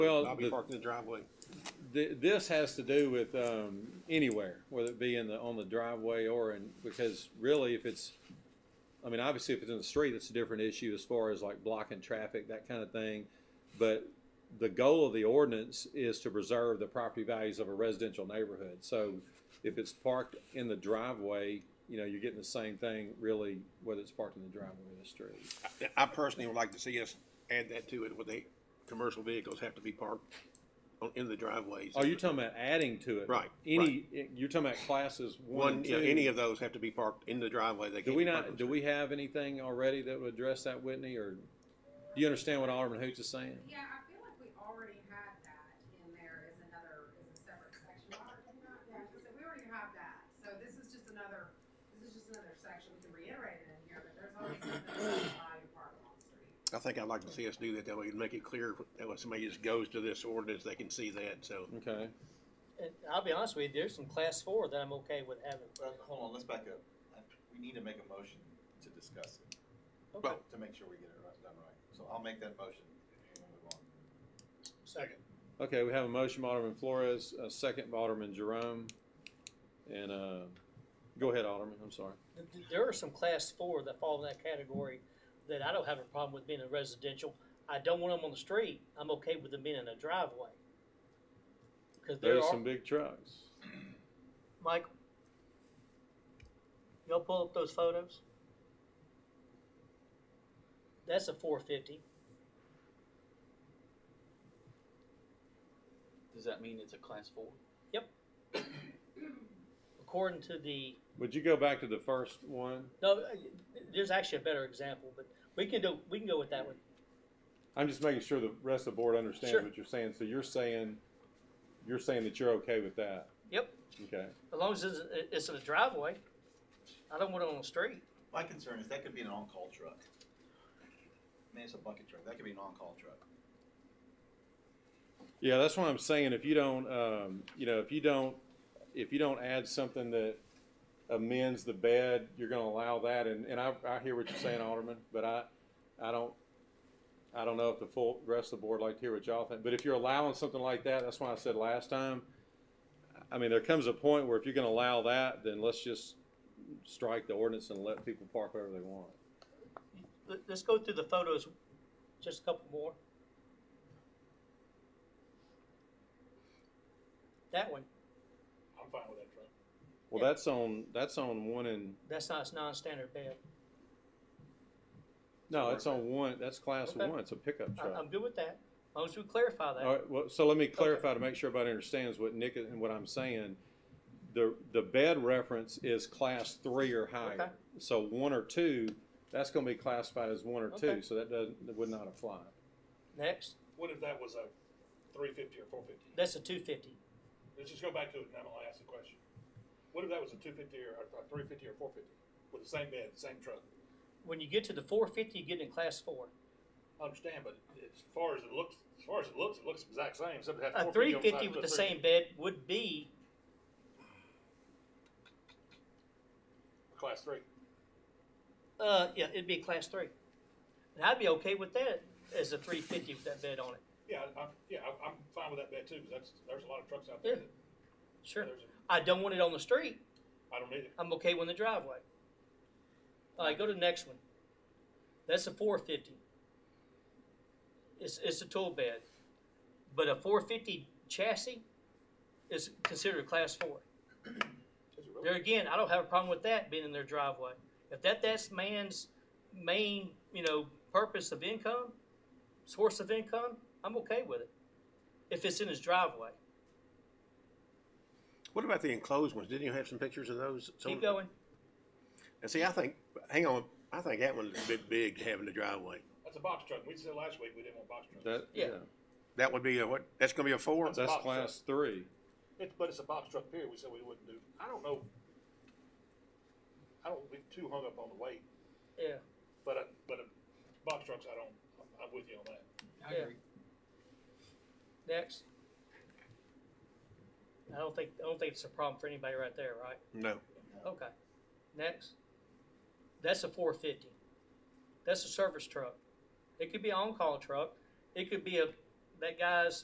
Well, I'll be the- parked in the driveway. Th- this has to do with, um, anywhere, whether it be in the, on the driveway or in, because really if it's, I mean, obviously if it's in the street, it's a different issue as far as like blocking traffic, that kind of thing. But the goal of the ordinance is to preserve the property values of a residential neighborhood. So if it's parked in the driveway, you know, you're getting the same thing really, whether it's parked in the driveway or the street. I personally would like to see us add that to it, where they, commercial vehicles have to be parked on, in the driveways. Oh, you're talking about adding to it? Right, Any, you're talking about classes one, One, and yeah, two? any of those have to be parked in the driveway. They Do can't we be parked not, on do we have anything already that would address that, Whitney, or do you understand what Alderman Hoots is saying? Yeah, I feel like we already had that in there as another, as a separate section. Why would we not- yeah, I was gonna say, We already have that, so this is just another, this is just another section, we can reiterate it in here, but there's always something that's allowed to park on the the street. street. I think I'd like to see us do that, that way it'd make it clear, that when somebody just goes to this ordinance, they can see that, so. Okay, And I'll be honest with you, there's some class four that I'm okay with having. Well, hold on, let's back up. I- We need to make a motion to discuss it, Okay. to make sure we get it right, done right. So I'll make that motion. and we'll move on. Second. okay, we have a motion, by Alderman Flores, a second by Alderman Jerome, and, uh, go ahead, Alderman, I'm sorry. Th- th- There are some class four that fall in that category that I don't have a problem with being in residential. I don't want them on the street. I'm okay with them being in a driveway. Cause there There's are, some big trucks. Mike, y'all pull up those photos? That's a four fifty. Does that mean it's a class four? According to the, Would you go back to the first one? no, uh, there's actually a better example, but we can do, we can go with that one. I'm just making sure the rest of the board understands Sure. what you're saying, so you're saying, you're saying that you're okay with that, Yep. okay? As long as it's, it's in a driveway, I don't want it on the street. My concern is that could be an on-call truck. Man, it's a bucket truck. That could be an on-call truck. Yeah, that's what I'm saying. If you don't, um, you know, if you don't, if you don't add something that amends the bed, you're gonna allow that. And, and I, I hear what you're saying, Alderman, but I, I don't, I don't know if the full rest of the board like to hear what y'all think. But if you're allowing something like that, that's why I said last time, I mean, there comes a point where if you're gonna allow that, then let's just strike the ordinance and let people park wherever they want. Let, let's go through the photos, just a couple more. That one, I'm fine with that truck. Well, that's on, that's on one and, that's not, it's non-standard bed. no, it's on one, that's class Okay. one. It's a pickup I, truck. I'm good with that, as long as we clarify All that. right, well, so let me clarify to make sure everybody understands what Nick and what I'm saying. The, the bed reference is class three or Okay. higher. So one or two, that's gonna be classified as one or two, Okay. so that doesn't, that would not apply. Next, What if that was a three fifty or four fifty? that's a two fifty. Let's just go back to it and then I'll ask the question. What if that was a two fifty or a three fifty or four fifty with the same bed, same truck? When you get to the four fifty, you get in class four. I understand, but as far as it looks, as far as it looks, it looks exact same, except it has A four three fifty fifty with the same bed would be, Class three. uh, yeah, it'd be a class three. And I'd be okay with that as a three fifty with that bed on it, Yeah, I- I'm, yeah, I'm- I'm fine with that bed too, 'cause that's, there's a lot of trucks out there Yeah. that, sure. there's, I don't want it on the street. a- I don't need it. I'm okay with the driveway. All right, go to the next one. That's a four fifty. It's, it's a tool bed, but a four fifty chassis is considered a class four. Is it really? There again, I don't have a problem with that being in their driveway. If that, that's man's main, you know, purpose of income, source of income, I'm okay with it. If it's in his driveway. What about the enclosed ones? Didn't you have some pictures of those? Some- Keep going. And see, I think, hang on, I think that one's a bit big to have in the driveway. That's a box truck. We said last week we didn't want box trucks. That, yeah, Yeah. That would be a, what, that's gonna be a four? that's box class three. It, but it's a box truck period. We said we wouldn't do. I don't know. I don't. We too hung up on the weight, Yeah. but I, but a box trucks. I don't. I'm with you on that. I agree. Next. I don't think, I don't think it's a problem for anybody right there, right? No. Okay. Next. That's a four fifty. That's a service truck. It could be an on-call truck. It could be a, that guy's